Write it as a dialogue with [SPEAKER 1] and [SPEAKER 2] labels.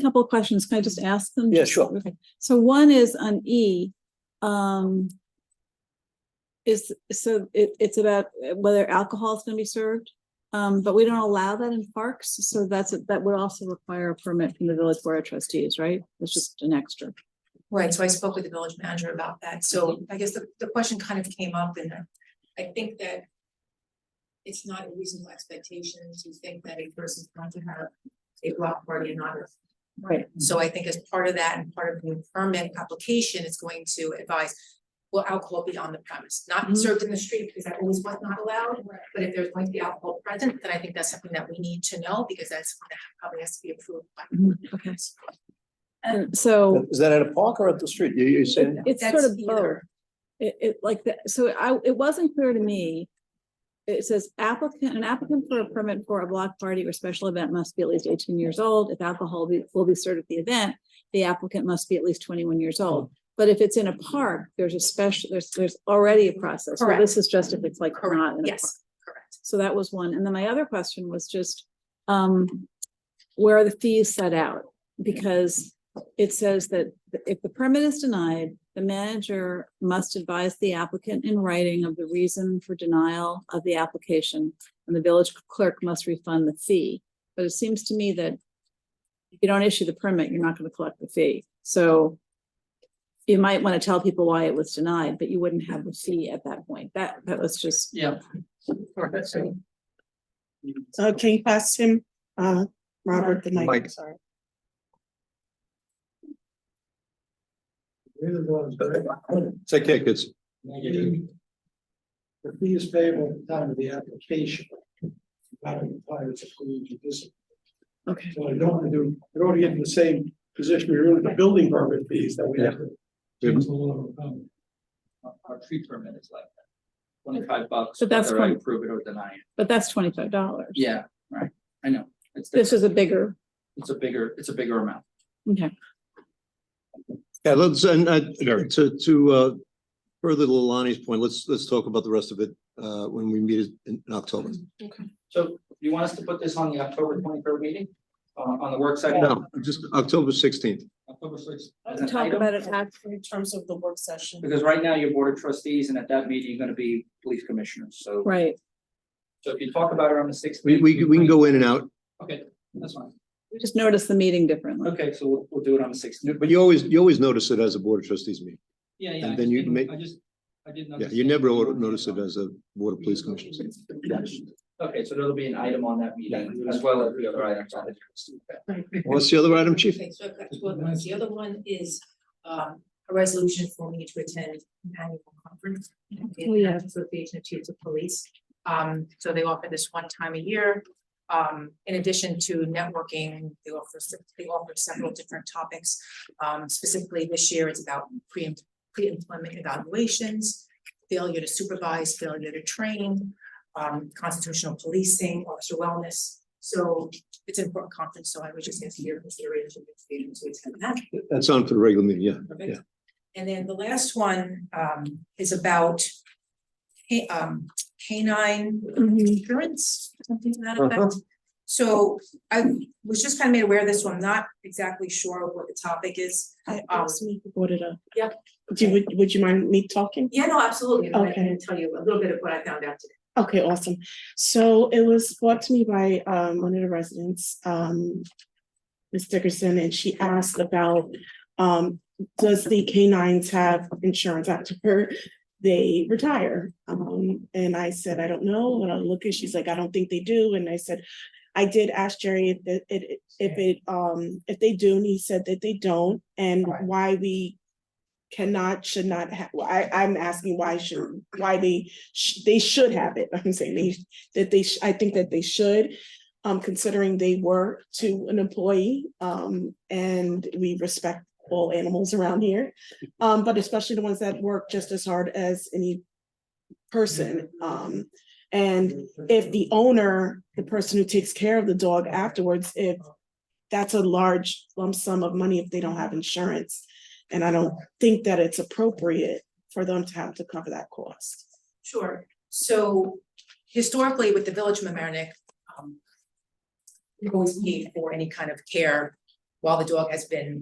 [SPEAKER 1] couple of questions. Can I just ask them?
[SPEAKER 2] Yeah, sure.
[SPEAKER 1] Okay. So one is on E, um, is, so it, it's about whether alcohol is going to be served. Um, but we don't allow that in parks, so that's, that would also require a permit from the village board of trustees, right? It's just an extra.
[SPEAKER 3] Right, so I spoke with the village manager about that, so
[SPEAKER 1] Mm-hmm.
[SPEAKER 3] I guess the, the question kind of came up and I- I think that. It's not a reasonable expectation to think that a person's going to have a block party and not a.
[SPEAKER 1] Mm-hmm. Right.
[SPEAKER 3] So I think as part of that and part of the permit application, it's going to advise. Will alcohol be on the premise, not
[SPEAKER 1] Mhm.
[SPEAKER 3] served in the street because that always was not allowed, but if there's going to be alcohol present, then I think that's something that we need to know because that's something that probably has to be approved by.
[SPEAKER 1] Okay.
[SPEAKER 3] Uh,
[SPEAKER 1] And so
[SPEAKER 2] Is that at a park or at the street? You, you said,
[SPEAKER 1] it's sort
[SPEAKER 3] That's
[SPEAKER 1] of both.
[SPEAKER 3] either.
[SPEAKER 1] It, it like that, so I, it wasn't clear to me. It says applicant, an applicant for a permit for a block party or special event must be at least eighteen years old. If alcohol be- will be served at the event, the applicant must be at least twenty-one years old. But if it's in a park, there's a special, there's, there's already a process. So
[SPEAKER 3] Correct.
[SPEAKER 1] this is just if it's like not in a park.
[SPEAKER 3] Yes, correct.
[SPEAKER 1] So that was one. And then my other question was just, um, where are the fees set out? Because it says that if the permit is denied, the manager must advise the applicant in writing of the reason for denial of the application, and the village clerk must refund the fee. But it seems to me that if you don't issue the permit, you're not going to collect the fee. So you might want to tell people why it was denied, but you wouldn't have the fee at that point. That, that was just
[SPEAKER 4] Yeah.
[SPEAKER 5] So can you pass him, uh, Robert the mic,
[SPEAKER 2] Mike.
[SPEAKER 5] sorry.
[SPEAKER 2] take care, kids.
[SPEAKER 6] The fee is payable at the time of the application. Not in time it's agreed to this.
[SPEAKER 1] Okay.
[SPEAKER 6] So I don't want to do, I don't want to get in the same position, we're in the building permit fees that we have. to-
[SPEAKER 2] Yeah.
[SPEAKER 6] It's a little, um,
[SPEAKER 4] Our our tree permit is like that. Twenty-five bucks.
[SPEAKER 1] But that's
[SPEAKER 4] Whether I
[SPEAKER 1] fine.
[SPEAKER 4] approve it or deny it.
[SPEAKER 1] But that's twenty-five dollars.
[SPEAKER 4] Yeah, right. I know. It's,
[SPEAKER 1] This
[SPEAKER 4] different.
[SPEAKER 1] is a bigger,
[SPEAKER 4] it's a bigger, it's a bigger amount.
[SPEAKER 1] okay,
[SPEAKER 7] Yeah, let's, and uh, to, to, uh, further Lalani's point, let's, let's talk about the rest of it, uh, when we meet in, in October.
[SPEAKER 4] So you want us to put this on the October twenty-third meeting? Uh, on the work session?
[SPEAKER 7] No, just October sixteenth.
[SPEAKER 4] October sixth.
[SPEAKER 1] talk about it after.
[SPEAKER 5] In terms of the work session.
[SPEAKER 4] Because right now you're board of trustees and at that meeting you're gonna be police commissioners. So,
[SPEAKER 1] Right,
[SPEAKER 4] so if you talk about it on the sixth.
[SPEAKER 7] We, we, can- we can go in and out,
[SPEAKER 4] Okay, that's fine.
[SPEAKER 1] we just noticed the meeting differently.
[SPEAKER 4] Okay, so we'll, we'll do it on the sixth.
[SPEAKER 7] but you always, you always notice it as a board of trustees meeting.
[SPEAKER 4] Yeah, yeah.
[SPEAKER 7] and
[SPEAKER 4] I
[SPEAKER 7] then
[SPEAKER 4] just
[SPEAKER 7] you
[SPEAKER 4] didn't-
[SPEAKER 7] make-
[SPEAKER 4] I just, I didn't.
[SPEAKER 7] Yeah, you never ought to notice it as a board of police commissioners. meeting.
[SPEAKER 4] Okay, so there'll be an item on that meeting as well as the other items on the.
[SPEAKER 7] What's the other item, chief?
[SPEAKER 3] Okay, so I've got two other ones. The other one is um a resolution for me to attend an annual conference.
[SPEAKER 1] Oh, yeah.
[SPEAKER 3] the Association of Chiefs of Police. Um, so they offer this one time a year. Um, in addition to networking, they offer, se- they offer several different topics. Um, specifically this year, it's about pre, pre-employment evaluations, failure to supervise, failure to train, um, constitutional policing, officer wellness. So it's an important conference, so I would just ask your consideration if you're able to attend that.
[SPEAKER 7] That's on for the regular meeting, yeah.
[SPEAKER 3] Perfect. And then the last one um is about ca- um canine
[SPEAKER 5] Mm-hmm.
[SPEAKER 3] insurance, something to that effect. So I was just kind of made aware of this, so I'm not exactly sure what the topic is. Um,
[SPEAKER 5] Brought it up.
[SPEAKER 3] Yep.
[SPEAKER 5] Do, you- would, would you mind me talking?
[SPEAKER 3] yeah, no, absolutely. and I
[SPEAKER 5] Okay.
[SPEAKER 3] can tell you a little bit of what I found out today.
[SPEAKER 5] Okay, awesome. So it was brought to me by um one of the residents, um. Ms. Dickerson, and she asked about um, does the canines have insurance after her? They retire. Um, and I said, I don't know. And I look and she's like, I don't think they do. And I said, I did ask Jerry if it- it, if it, um, if they do, and he said that they don't, and
[SPEAKER 3] Right.
[SPEAKER 5] why we cannot, should not have, well, I, I'm asking why should, why they, sh- they should have it. I'm saying they, that they, sh- I think that they should. Um, considering they were to an employee, um, and we respect all animals around here. Um, but especially the ones that work just as hard as any person. Um, and if the owner, the person who takes care of the dog afterwards, if that's a large lump sum of money if they don't have insurance. And I don't think that it's appropriate for them to have to cover that cost.
[SPEAKER 3] Sure, so historically with the Village of Mamaroneck, um. We've always paid for any kind of care while the dog has been